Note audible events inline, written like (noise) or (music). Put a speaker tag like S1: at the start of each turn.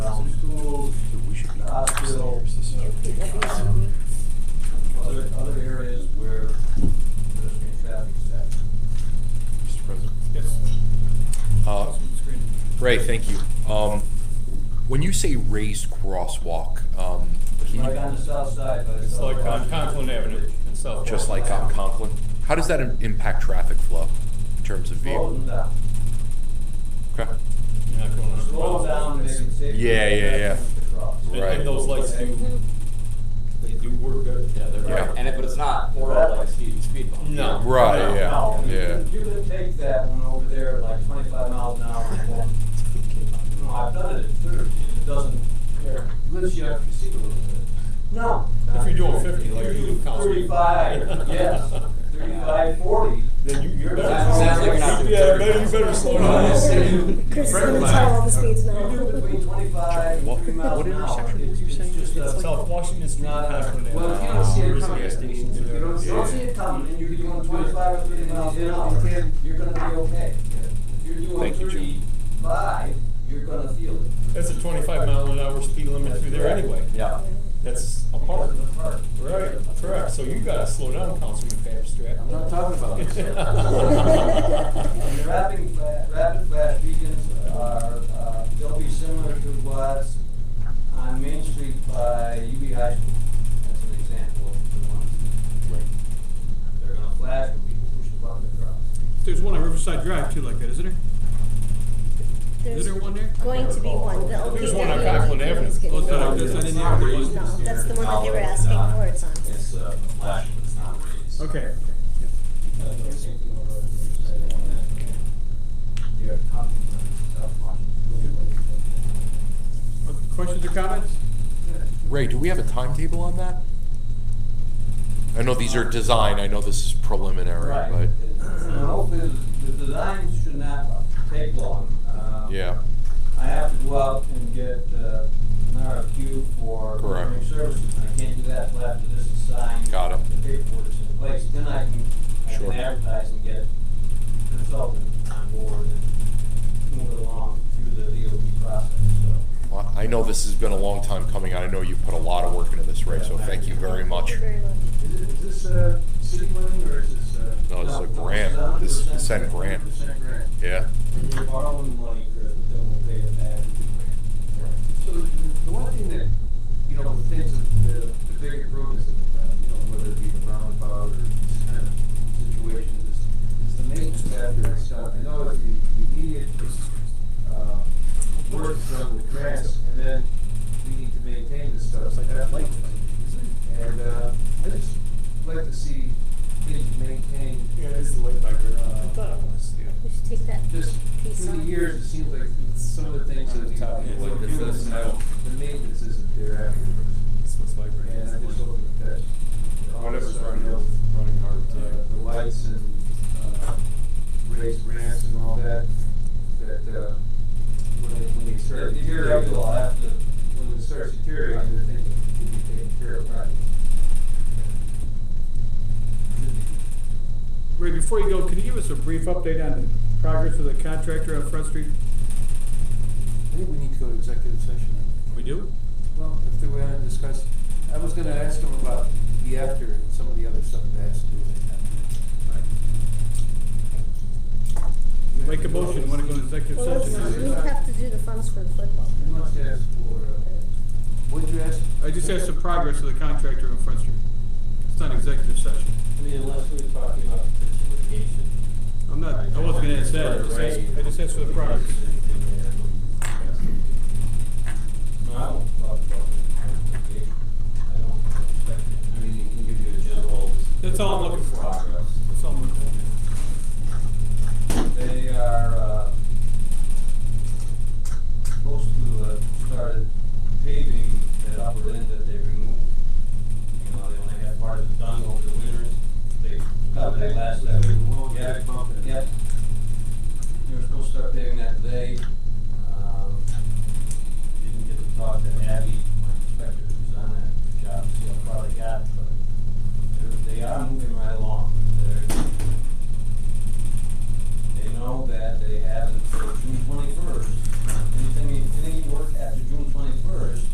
S1: Great, Uh, thank you. Um, when you say raised crosswalk, um,
S2: It's
S1: can
S2: like
S1: you,
S2: on the south side, but
S3: It's like on Conklin Avenue in South.
S1: just like on Conklin, how does that im- impact traffic flow in terms of
S2: Slow
S1: vehicles?
S2: them down.
S1: Okay.
S3: You're not going a hundred
S2: Slow
S3: miles
S2: down
S3: an
S2: and
S3: hour.
S2: make it safe.
S1: Yeah, yeah, yeah.
S3: And-
S1: Right.
S3: And those lights do, they do work good, yeah, they're
S1: Yeah.
S3: bright.
S4: And if, but it's not moral like speed, speed bump.
S3: No.
S1: Right,
S3: No,
S1: yeah,
S2: No, I mean,
S1: yeah.
S2: if you would take that one over there at like twenty-five miles an hour and then, you know, I've done it at thirty, and it doesn't, care. lifts you up, you see a little bit. No.
S3: If you're doing 50, like you do, count.
S2: Thirty-five,
S3: (laughs)
S2: yes, thirty-five, forty.
S3: Then you, you're.
S4: Sounds- sounds like you're not doing
S3: Yeah,
S4: thirty.
S3: better, you better slow
S2: No,
S3: down.
S2: no.
S5: Chris is
S3: Right.
S5: gonna tell all the speeds now.
S2: You do between twenty-five
S1: What-
S2: and three miles
S1: what
S2: an hour.
S1: intersection
S2: It's-
S1: were you
S2: it's
S1: saying?
S2: just
S1: It's
S2: a-
S1: like-
S3: South Washington Street,
S2: Not, uh,
S3: Conklin Avenue.
S2: well, if you don't see it
S3: There's a
S2: coming,
S3: gas station
S2: if you
S3: there.
S2: don't, don't see it coming, and you're doing twenty-five or thirty miles an hour, you're gonna be okay. If you're doing
S1: Thank you, Jim.
S2: thirty-five, you're gonna feel it.
S3: That's a twenty-five mile an hour speed limit through there anyway.
S4: Yeah.
S3: That's a park.
S2: Because of the heart.
S3: Right, correct, so you gotta slow down, Councilman Babstrack.
S4: I'm not talking
S2: (laughs)
S4: about
S2: And the uh,
S4: this.
S2: rapid flash, rapid flash beacons are, uh, they'll be similar to what's on Main Street by UB High School. That's an example of the ones that they're gonna flash when people push the button across.
S6: There's one on Riverside Drive too like that, isn't there?
S5: There's
S6: Is there one there?
S5: going to be one. The only
S3: There's
S5: thing
S3: one on
S5: that we
S3: Conklin
S5: don't
S3: Avenue.
S5: is getting
S6: Oh, it's not
S5: one.
S6: on- that's not in the upper east.
S5: No, that's the one that they were asking for. It's on.
S7: It's uh, a flash, but it's not raised. Uh,
S6: Okay.
S2: You're talking about South Washington.
S6: Uh, Questions or comments?
S1: Ray, do we have a timetable on that? I know these are design, I know this is preliminary,
S2: Right.
S1: but,
S2: And hopefully, the the designs should not take long. Um,
S1: yeah,
S2: I have to go out and get uh, an RFQ for
S1: Correct.
S2: engineering services, and I can't do that until after this is signed.
S1: Got it.
S2: The paperwork's in place, then I can, I
S1: Sure.
S2: can advertise and get consultant on board and move it along through the DOB process, so.
S1: Well, I know this has been a long time coming, and I know you put a lot of work into this, Ray, so thank you very much.
S5: Thank you very much.
S8: Is it- is this, uh, city money or is this, uh?
S1: No, this is a grant, this is consent grant,
S8: 100% grant.
S1: yeah.
S2: And You're borrowing money, Chris, but then we'll pay it back.
S8: So the the one thing that, you know, the things that the, the big improvements in the town, uh, you know, whether it be the roundabout or these kind of situations, is, is the maintenance factor itself. I know it's the the immediate, uh, work from the grants, and then we need to maintain this stuff, so that light. And, uh, I just like to see things maintained
S3: Yeah, it is the late back there.
S8: I
S3: thought it was, yeah.
S5: We should take that
S8: just
S5: piece
S8: through
S5: off.
S8: the years, it seems like some of the things that the top, like the maintenance, the maintenance isn't there afterwards.
S3: This was like.
S8: And I just hope that that's.
S3: Whatever's
S8: also,
S3: running,
S8: you know,
S3: running hard.
S8: uh, The lights and, uh, raised ramps and all that, that, uh, when they, when they start
S2: If you're
S8: deteriorating,
S2: able, I'll have to,
S8: when it starts deteriorating, the thing can be taken care of.
S2: Right.
S6: Ray, before you go, can you give us a brief update on the progress of the contractor on Front Street?
S9: I think we need to go to executive session.
S6: We do?
S9: Well, if they want to discuss, I was gonna ask them about the after and some of the other stuff that has to do with it.
S6: Make a motion, wanna go to executive
S5: Well, let's not.
S6: session?
S5: We have to do the funds for the football.
S8: You must ask for,
S2: uh,
S9: What'd you ask?
S6: I just asked the progress of the contractor on Front Street. It's not executive session.
S2: I mean, unless we're talking about potential litigation.
S6: I'm not, I wasn't gonna ask that, I just asked, I just asked for the progress.
S2: um, Um,